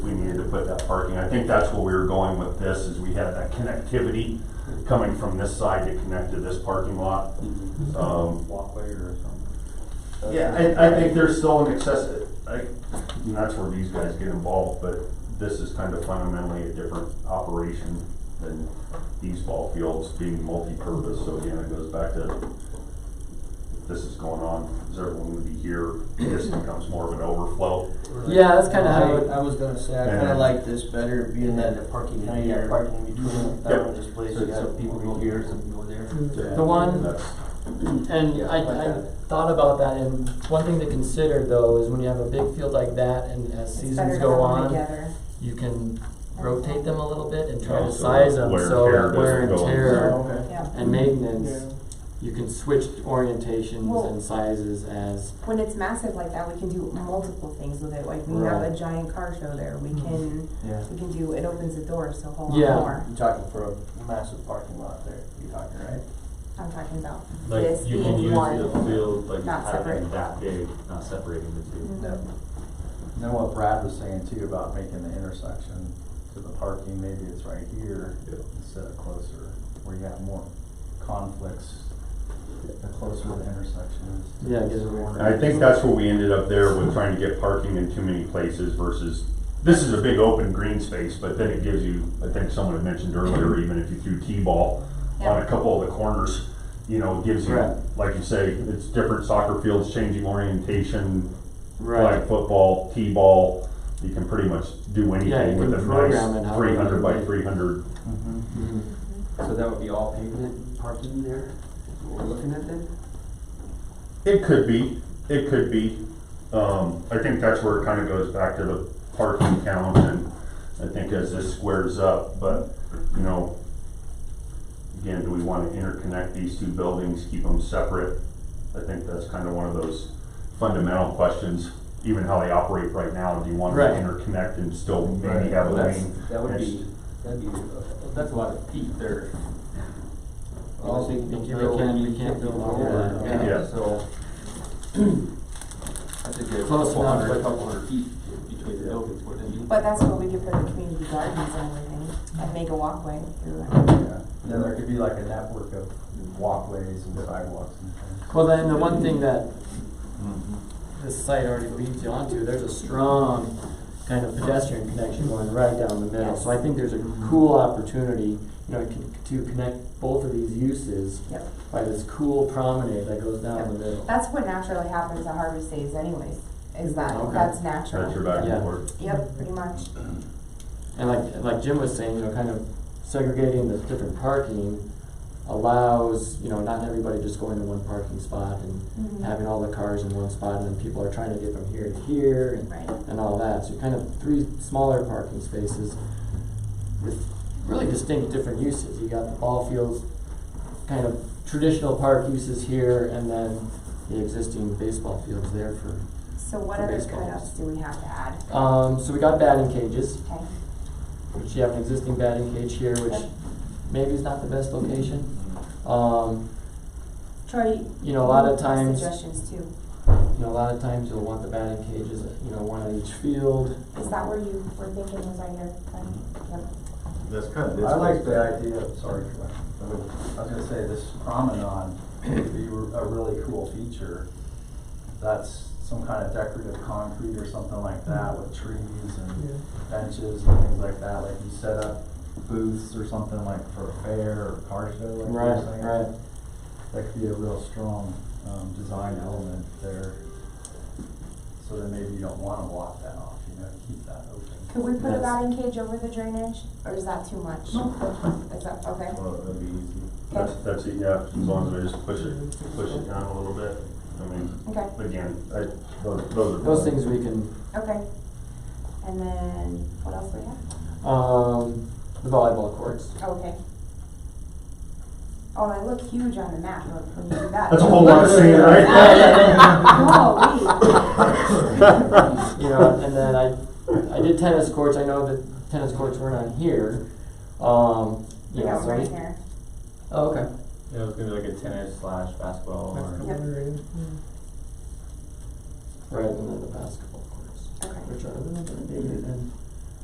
put that parking. I think that's where we were going with this, is we had that connectivity coming from this side to connect to this parking lot. Um, Walkway or something. yeah, I, I think there's still an access, I, and that's where these guys get involved, but this is kind of fundamentally a different operation than these ball fields being multi-purpose, so again, it goes back to this is going on, is everyone gonna be here, this becomes more of an overflow. Yeah, that's kinda how I it- would- I was gonna say, I Yeah. kinda like this better, being that the parking now you got parking in between, Yep. that one just plays, you got. So people go here, some go there. Mm. The one- That's- And I, I thought about that, and one thing to consider though is when you have a big field like that, and as seasons go on, you can rotate them a little bit and try to Also, size them, wear and so tear that wear and doesn't go on. tear okay. Yeah, and maintenance, you can switch orientations and sizes as, when it's massive like that, we can do multiple things with it, like we have a Right. giant car show there, we can, Yeah. we can do, it opens the doors to a whole lot Mm-hmm. Yeah. more. You're talking for a massive parking lot there, you're talking, right? I'm talking about Like, this you can use being one. the field, like, not having separate. that big, not separating the two. Mhm. No. And Then what Brad was saying too about making the intersection to the parking, maybe it's right here instead of closer, where you have more conflicts, the closer the intersection is. yeah, gives it more. And I think that's where we ended up there with trying to get parking in too many places versus, this is a big open green space, but then it gives you, I think someone had mentioned earlier, even if you threw T-ball on a couple of the corners, you know, it gives you, Right. like you say, it's different soccer fields, changing orientation, Right, flag football, T-ball, you can pretty much do anything you with can a program it nice however three you hundred by like. three hundred. Mhm. Mhm. Mm-hmm. So that would be all pavement parking there, is what we're looking at then? It could be, it could be. Um, I think that's where it kind of goes back to the parking count and I think as this squares up, but, you know, again, do we want to interconnect these two buildings, keep them separate? I think that's kind of one of those fundamental questions, even how they operate right now. Do you want them Right. to interconnect and still maybe Right. have a That's, lane? that would be, that'd be, uh, that's a lot of feet there. Oh, Well, Obviously, we you can't- build- we you can't build build all over that, it, yeah. So. That's a good Close couple enough. hundred, a couple hundred feet between the buildings, wouldn't it be? But that's what we could put the community gardens and everything, and make a walkway through it. Yeah. Then there could be like a network of walkways and sidewalks and things. well then, the one thing that this site already leads you onto, there's a strong kind of pedestrian connection going right down the middle. So I think there's a cool opportunity, you know, to- to connect both of these uses Yep. by this cool promenade that goes down the middle. That's what naturally happens at Harvest Days anyways, is that, Okay. that's natural. That's your back Yeah. and forth. Yep, pretty much. And like, like Jim was saying, you know, kind of segregating the different parking allows, you know, not everybody just going to one parking spot and Mhm. having all the cars in one spot and then people are trying to get from here to here and Right. and all that. So kind of three smaller parking spaces with really distinct different uses. You got the ball fields, kind of traditional park uses here, and then the existing baseball fields there for. So what For other baseball. cutouts do we have to add? Um, so we got batting cages, Okay, which you have an existing batting cage here, which maybe is not the best location. Um, Troy. you know, a lot of you have times, you Suggestions too. know, a lot of times you'll want the batting cages, you know, one on each field. Is that where you were thinking was right here? Right. Yep. That's kind I like the idea, of- sorry, Troy. I was gonna say, this promenade would be a really cool feature. That's some kind of decorative concrete or something like that with trees and benches and things like that, like you set up booths or something like for a fair or car show, like you were Right, saying. right. That could be a real strong, um, design element there. So then maybe you don't wanna block that off, you know, keep that open. Could we put a Yes. batting cage over the drainage, or is that too much? Is that, okay, Well, that'd be easy. That's, that's it, yeah, as long as I just push it, push it down a little bit. I mean, okay, again, I, those, those are. Those things we can okay. And then, what else do we have? Um, the volleyball courts. Okay. Oh, and I look huge on the map when when you do that. That's a whole lot of sand right Oh, You know, and then I, I did tennis courts. I know that tennis courts weren't on here. Um, wait, we you know, got so right we, here. oh, okay. Yeah, it was gonna be like a tennis slash basketball or. Yep. Right, and then the basketball courts, Okay, which are maybe then